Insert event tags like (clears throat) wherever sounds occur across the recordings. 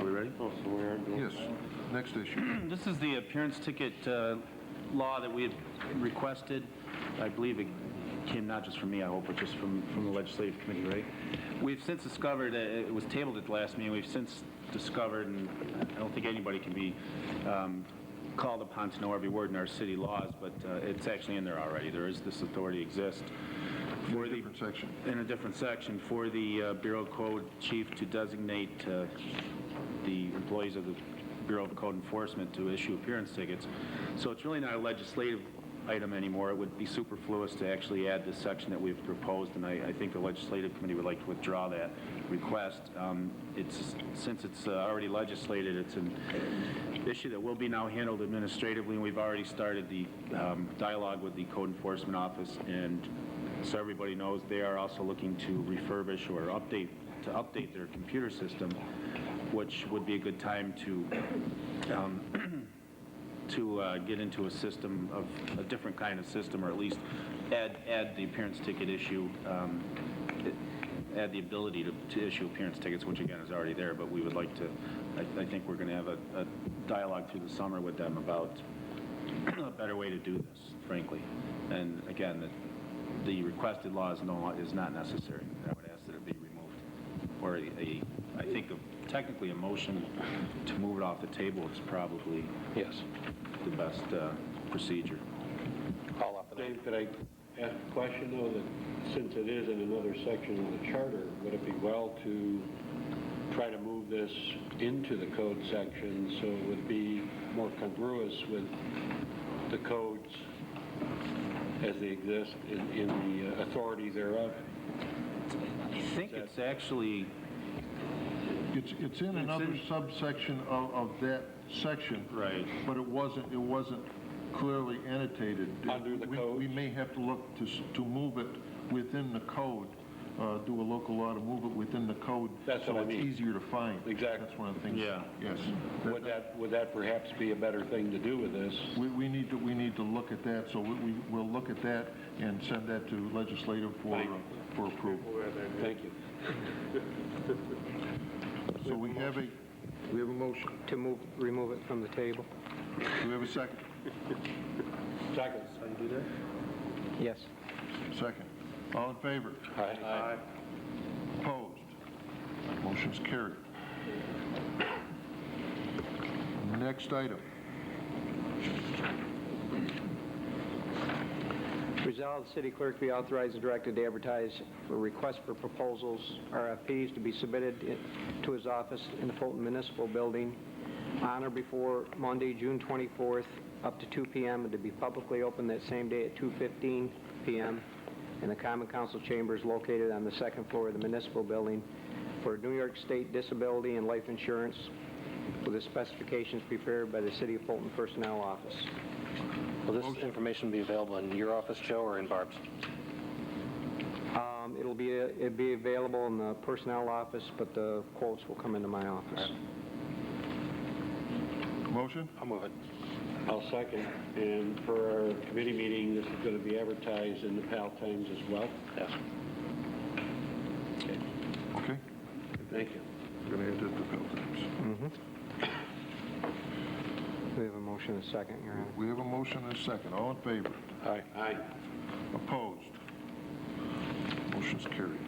already. Oh, so we are doing. Yes, next issue. Hmm, This is the appearance ticket uh, law that we had requested. I believe it came not just from me, I hope, but just from, from the legislative committee, right? We've since discovered, uh, it was tabled at the last meeting, we've since discovered, and I don't think anybody can be um, called upon to know every word in our city laws, but uh, it's actually in there already. There is, this authority exists. For the Different section. in a different section for the uh, Bureau of Code chief to designate uh, the employees of the Bureau of Code Enforcement to issue appearance tickets. So it's really not a legislative item anymore. It would be superfluous to actually add this section that we've proposed, and I, I think the legislative committee would like to withdraw that request. Um, It's, since it's uh, already legislated, it's an issue that will be now handled administratively, and we've already started the um, dialogue with the code enforcement office, and so everybody knows, they are also looking to refurbish or update, to update their computer system, which would be a good time to, um, (clears throat) to uh, get into a system of, a different kind of system, or at least add, add the appearance ticket issue, um, add the ability to, to issue appearance tickets, which again is already there, but we would like to, I, I think we're going to have a, a dialogue through the summer with them about a better way to do this, frankly. And again, the, the requested law is no, is not necessary. I would ask that it be removed. Or a- a, I think of- technically a motion to move it off the table is probably Yes, the best uh, procedure. all up and Dave, could I ask a question, though, that since it is in another section of the charter, would it be well to try to move this into the code section so it would be more congruous with the codes as they exist in, in the uh, authority thereof? I think it's actually, It's, it's in another subsection of, of that section. Right. But it wasn't, it wasn't clearly annotated. Under the We- code? We may have to look to, s- to move it within the code, uh, do a local law to move it within the code. That's what I So mean. it's easier to find. Exactly. That's one of the things. Yeah. Yes. Would that, would that perhaps be a better thing to do with this? We, we need to, we need to look at that, so we, we- we'll look at that and send that to legislative for, Thank you. uh, for approval. Thank you. So we have a, we have a motion. To move, remove it from the table? Do we have a second? Second. Yes. Second. All in favor? Aye. Opposed? Motion's carried. Next item. Resolved, city clerk be authorized and directed to advertise for requests for proposals, RFPs, to be submitted i- to his office in the Fulton Municipal Building on or before Monday, June 24th, up to 2 PM, and to be publicly open that same day at 2:15 PM in the Common Council Chambers located on the second floor of the municipal building for New York State Disability and Life Insurance with the specifications prepared by the City of Fulton Personnel Office. Will this information be available in your office, Joe, or in Barb's? Um, It'll be, it'd be available in the personnel office, but the quotes will come into my office. Motion? I'll move it. I'll second. And for our committee meeting, this is going to be advertised in the PAL Times as well. Yes. Okay. Thank you. Going to add that to bill tabs. We have a motion and a second, Your Honor. We have a motion and a second. All in favor? Aye. Aye. Opposed? Motion's carried.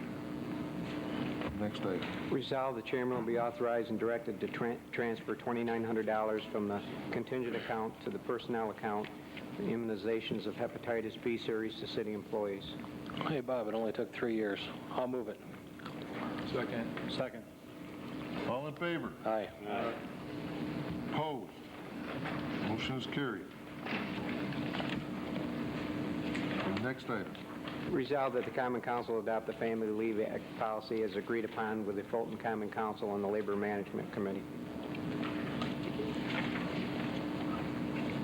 Next item. Resolved, the chairman will be authorized and directed to tran- transfer $2,900 from the contingent account to the personnel account for immunizations of hepatitis B series to city employees. Hey, Bob, it only took three years. I'll move it. Second. All in favor? Aye. Opposed? Motion is carried. The Next item. Resolved that the common council adopt the family leave act policy as agreed upon with the Fulton Common Council and the Labor Management Committee.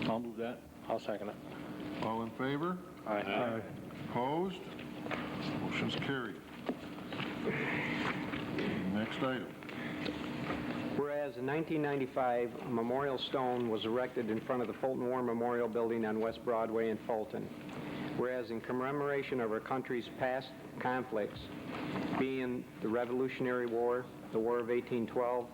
I'll move that. I'll second it. All in favor? Aye. Opposed? Motion is carried. Next item. Whereas in 1995, a memorial stone was erected in front of the Fulton War Memorial Building on West Broadway in Fulton. Whereas in commemoration of our country's past conflicts, being the Revolutionary War, the War of 1812,